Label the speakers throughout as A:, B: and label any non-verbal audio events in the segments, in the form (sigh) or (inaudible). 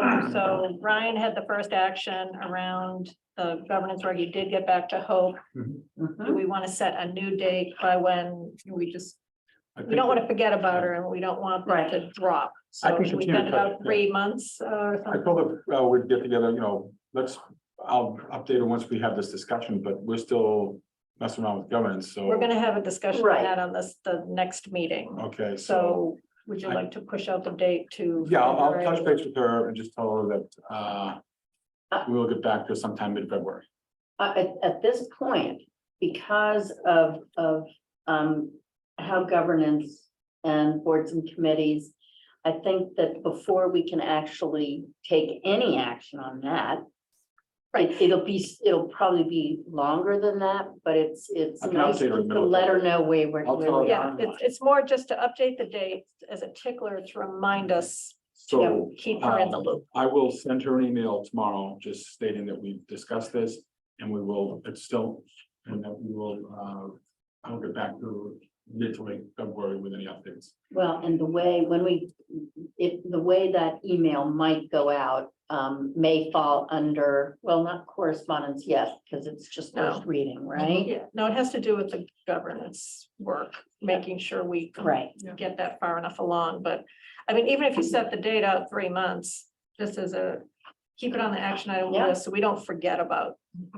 A: Um, So Ryan had the first action around the governance where you did get back to Hope.
B: Mm-hmm. Uh-huh.
A: Do we want to set a new date by when we just,
B: I
A: we don't want
B: think-
A: to forget about her and we don't want them to drop.
B: I
A: So
B: think
A: should we
B: continue
A: spend
B: to touch,
A: about three months uh, or
B: I
A: something.
B: told her, uh, we'd get together, you know, let's, I'll update her once we have this discussion, but we're still messing around with governance, so.
A: We're gonna have a discussion on
C: Right.
A: that on this, the next meeting.
B: Okay, so,
A: So would you like to push out the date to?
B: yeah, I'll, I'll touch
A: February?
B: base with her and just tell her that, uh, we'll get back to her sometime mid-February.
C: Uh, at, at this point, because of, of, um, how governance and boards and committees, I think that before we can actually take any action on that, it, it'll be, it'll probably be longer than that, but it's, it's
B: I can
C: nice
B: update her in the
C: to
B: middle.
C: let her know where we're.
B: I'll tell her.
A: Yeah, it's, it's more just to update the date as a tickler to remind us
B: So.
A: to keep her in the
B: um,
A: loop.
B: I will send her an email tomorrow, just stating that we've discussed this and we will, it's still, and that we will, uh, I'll get back to mid to late February with any updates.
C: Well, and the way, when we, if, the way that email might go out, um, may fall under, well, not correspondence yet, because it's just
A: No.
C: first reading, right?
A: Yeah, no, it has to do with the governance work, making sure we
C: Right,
A: get that far enough along, but, I mean, even if you set the date out three months, just as a, keep it on the action item
C: Yeah.
A: list, so we don't forget about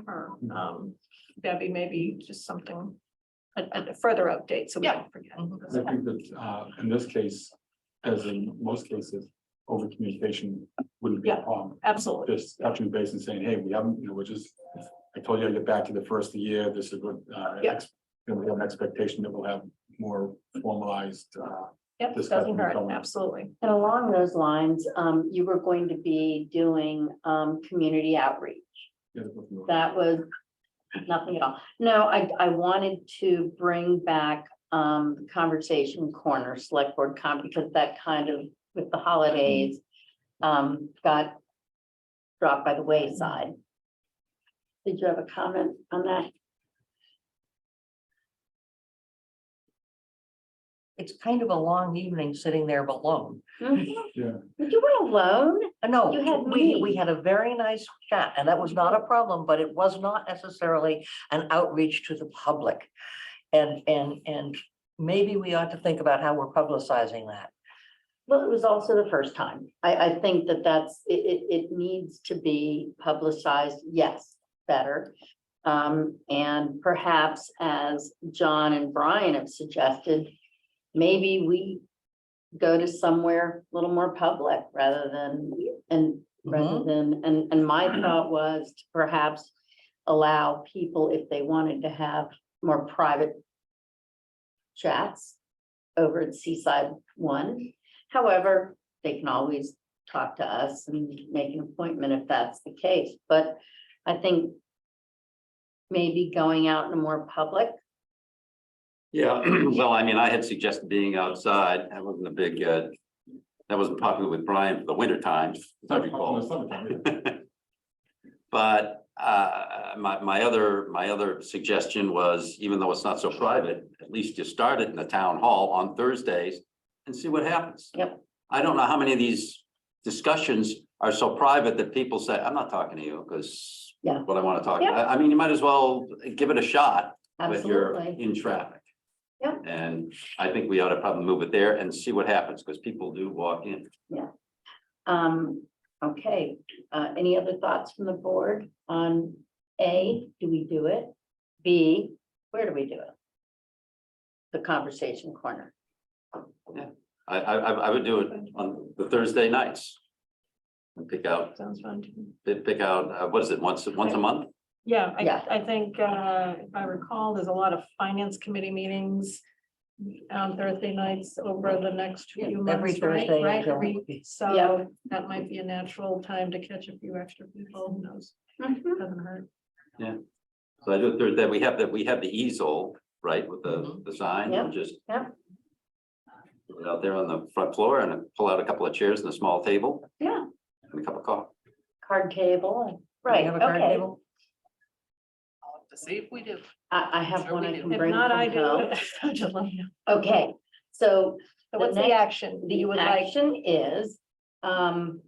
A: her. Um, Debbie, maybe just something, a, a further update, so we don't forget.
B: I think that, uh, in this case, as in most cases, over communication wouldn't be a
A: Yeah.
B: problem.
A: Absolutely,
B: Just touching base and saying, hey, we haven't, you know, we're just, I told you I'd get back to the first of the year, this is what, uh,
A: Yeah.
B: ex- you know, we have an expectation that we'll have more formalized, uh,
A: yep, doesn't
B: Discussion
A: hurt,
B: going.
A: absolutely,
C: and along those lines, um, you were going to be doing, um, community outreach. That was nothing at all. No, I, I wanted to bring back, um, the conversation corner, select board con, because that kind of, with the holidays, um, got dropped by the wayside. Did you have a comment on that?
D: it's kind of a long evening sitting there alone.
B: Yeah.
C: You were alone?
D: Uh, No,
C: You had
D: we, we
C: me.
D: had a very nice chat and that was not a problem, but it was not necessarily an outreach to the public. And, and, and maybe we ought to think about how we're publicizing that.
C: Well, it was also the first time. I, I think that that's, it, it, it needs to be publicized, yes, better. Um, and perhaps as John and Brian have suggested, maybe we go to somewhere a little more public rather than, and rather than, and, and my thought was to perhaps allow people, if they wanted to have more private chats over at Seaside One. However, they can always talk to us and make an appointment if that's the case, but I think maybe going out in a more public,
E: Yeah, (clears throat) well, I mean, I had suggested being outside. That wasn't a big, uh, that wasn't popular with Brian for the winter times, as I recall. But, uh, my, my other, my other suggestion was, even though it's not so private, at least you start it in the town hall on Thursdays and see what happens.
C: Yep.
E: I don't know how many of these discussions are so private that people say, I'm not talking to you because
C: Yeah.
E: what I want to talk,
C: Yeah.
E: I, I mean, you might as well give it a shot with your
C: absolutely.
E: in traffic.
C: Yeah.
E: And I think we ought to probably move it there and see what happens, because people do walk in.
C: Um, okay, uh, any other thoughts from the board on A, do we do it? B, where do we do it? The conversation corner.
E: I, I, I I would do it on the Thursday nights. And Pick out,
A: sounds fun to me.
E: pick pick out, uh, what is it, once, once a month?
A: Yeah,
C: Yeah.
A: I, I think, uh, if I recall, there's a lot of finance committee meetings on Thursday nights over the next few
D: Every
A: months, right?
D: Thursday.
A: Right,
D: until-
A: every-
C: Yeah.
A: So that might be a natural time to catch a few extra people, who knows,
D: Mm-hmm.
A: doesn't hurt.
E: So I do it Thursday, we have that, we have the easel, right, with
C: Mm-hmm.
E: the, the sign,
C: Yeah,
E: and just.
C: yeah.
E: put it Out there on the front floor and pull out a couple of chairs and a small table
C: Yeah,
E: and a cup of coffee.
C: card table, and-
D: Do we
C: right,
D: have a card
C: okay.
D: table?
F: I'll have to see if we do.
C: I, I have
F: Sure
C: one
F: we
C: I
F: do.
C: can
A: If
C: bring
A: not, I (laughs)
C: from home.
A: do. Just let me know.
C: Okay, so
A: So
C: The
A: what's the
C: next-
A: action that you
C: the
A: would like?
C: action is, um,